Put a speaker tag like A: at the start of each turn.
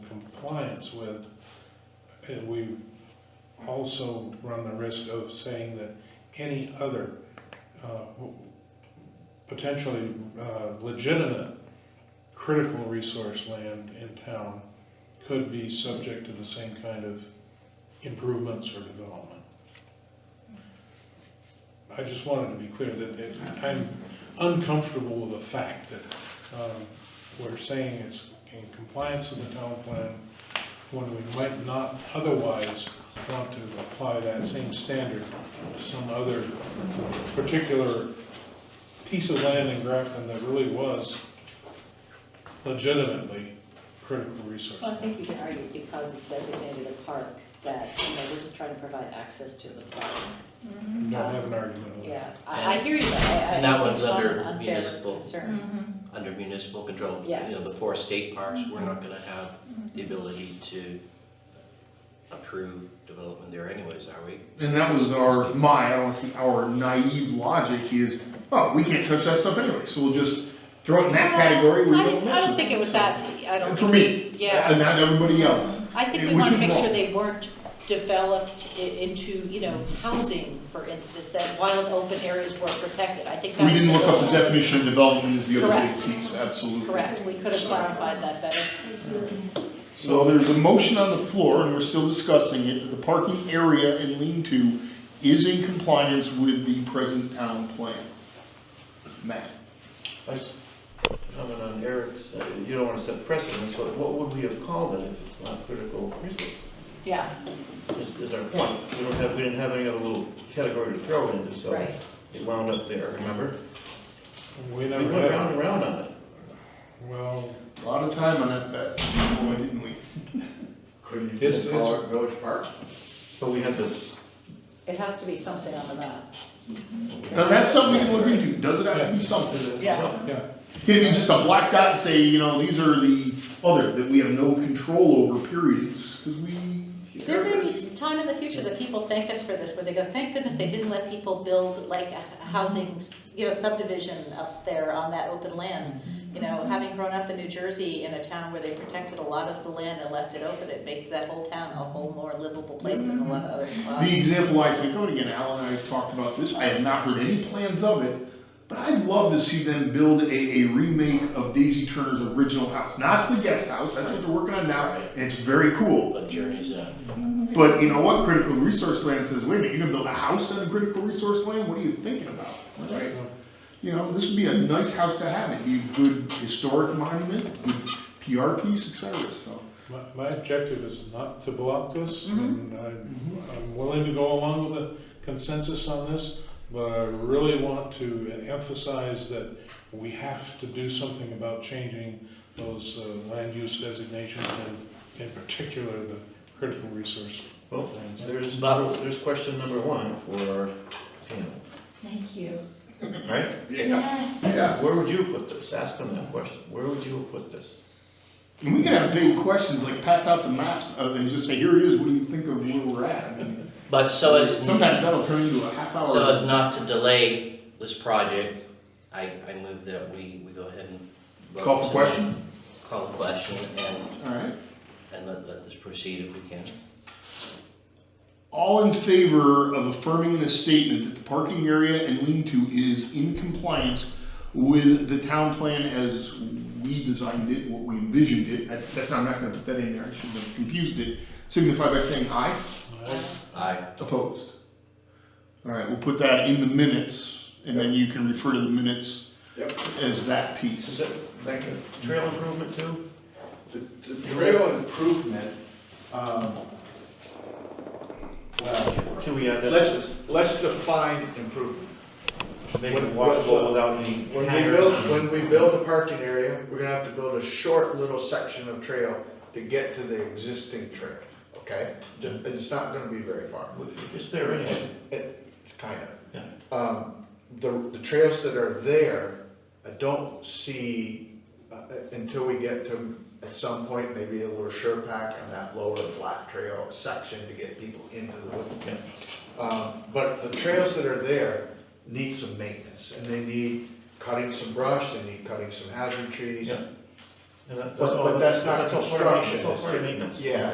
A: compliance with, and we also run the risk of saying that any other uh, w- potentially uh, legitimate critical resource land in town could be subject to the same kind of improvements or development. I just wanted to be clear that it- I'm uncomfortable with the fact that um, we're saying it's in compliance with the town plan when we might not otherwise want to apply that same standard to some other particular piece of land in Grafton that really was legitimately critical resource.
B: Well, I think you can argue because it's designated a park, that, you know, we're just trying to provide access to the park.
A: Don't have an argument with that.
B: Yeah, I, I hear you, I, I.
C: And that one's
B: it's not an
C: under
B: unfair
C: municipal.
B: Concern,
C: under municipal control. You know,
B: Yes.
C: the four state parks, we're not gonna have the ability to approve development there anyways, are we?
D: And that was our, my, I don't see, our naive logic is, oh, we can't touch that stuff anyway, so we'll just throw it in that category where
E: I
D: you don't
E: don't,
D: mess
E: I don't
D: with
E: think
D: it.
E: it was
D: So-
E: that, I don't.
D: For
E: think-
D: me.
E: Yeah,
D: And not everybody else.
E: I think we
D: which
E: wanna
D: is
E: make sure
D: wrong.
E: they weren't developed i- into, you know, housing, for instance, that wild open areas were protected, I think that.
D: We didn't
E: was
D: look up the
E: goal.
D: definition of development as the other big
E: Correct.
D: piece, absolutely.
E: Correct, we could have clarified that better.
D: So there's a motion on the floor, and we're still discussing it, that the parking area and lean-to is in compliance with the present town plan. Matt?
F: I s- comment on Eric's, uh, you don't want to set precedents, what, what would we have called it if it's not critical resource?
E: Yes,
F: Is, is our point, we don't have, we didn't have any other little category to throw into, so
E: right.
F: it wound up there, remember?
A: We
F: We
A: never
F: went
A: have,
F: round and round on it.
A: well,
D: A lot of time on that, bet. boy, didn't we?
G: Couldn't you
A: It's-
G: just call it Village Park?
F: But we had the,
B: it has to be something on the map.
D: Now, that's something we can look into, does it have to be something?
B: Yeah.
A: yeah,
D: Can it be just a black dot and say, you know, these are the other, that we have no control over periods, because we.
E: There may be some time in the future that people thank us for this, where they go, thank goodness they didn't let people build like a a housing, s- you know, subdivision up there on that open land. You know, having grown up in New Jersey in a town where they protected a lot of the land and left it open, it makes that whole town a whole more livable place than a lot of other spots.
D: The example I think, of, and again, Alan and I have talked about this, I have not heard any plans of it, but I'd love to see them build a, a remake of Daisy Turner's original house, not the guest house, that's what they're working on now, and it's very cool.
C: But Journey's not.
D: But you know what, critical resource land says, wait a minute, you're gonna build a house on critical resource land, what are you thinking about, right? You know, this would be a nice house to have, it'd be a good historic monument, good PR piece, et cetera, so.
A: my, my objective is not to block this, and I'm, I'm willing to go along with the consensus on this, but I really want to emphasize that we have to do something about changing those uh, land use designations, and in particular, the critical resource
F: well,
A: plans.
F: there's, there's question number one for our panel,
H: Thank you.
F: right?
H: Yes.
F: Where would you have put this? Ask them that question. Where would you have put this?
D: And we can have vague questions, like pass out the maps uh, and just say, here it is, what do you think of where we're at? I mean,
C: But so as,
D: Sometimes that'll turn into a half
C: so as
D: hour.
C: not to delay this project, I, I move that we, we go ahead and. vote
D: Call for
C: tonight.
D: question?
C: Call the question and,
D: Alright,
C: and let, let this proceed if we can.
D: all in favor of affirming in a statement that the parking area and lean-to is in compliance with the town plan as we designed it, what we envisioned it, That- that's, I'm not gonna put that in there, I should have confused it, signify by saying aye.
C: Aye.
D: Opposed. All right, we'll put that in the minutes, and then you can refer to the minutes
G: Yep.
D: as that piece.
F: Is it, thank you, trail improvement too?
G: The the trail improvement, um, well,
F: Should we add that?
G: let's, let's define improvement.
F: Make it washable without any
G: When we
F: hangers
G: build,
F: and-
G: when we build a parking area, we're gonna have to build a short little section of trail to get to the existing trail, okay? Ju- And it's not gonna be very far.
F: It's there anyway.
G: It's kind of. Um, the, the trails that are there, I don't see, uh, until we get to, at some point, maybe a little sure pack on that lower flat trail section to get people into the wood. Um, but the trails that are there need some maintenance, and they need cutting some brush, they need cutting some hazard trees.
F: Yeah. And that-
G: But-
F: all-
G: but that's not
F: all part of maintenance.
G: construction.
F: That's all part of maintenance.
G: Yeah,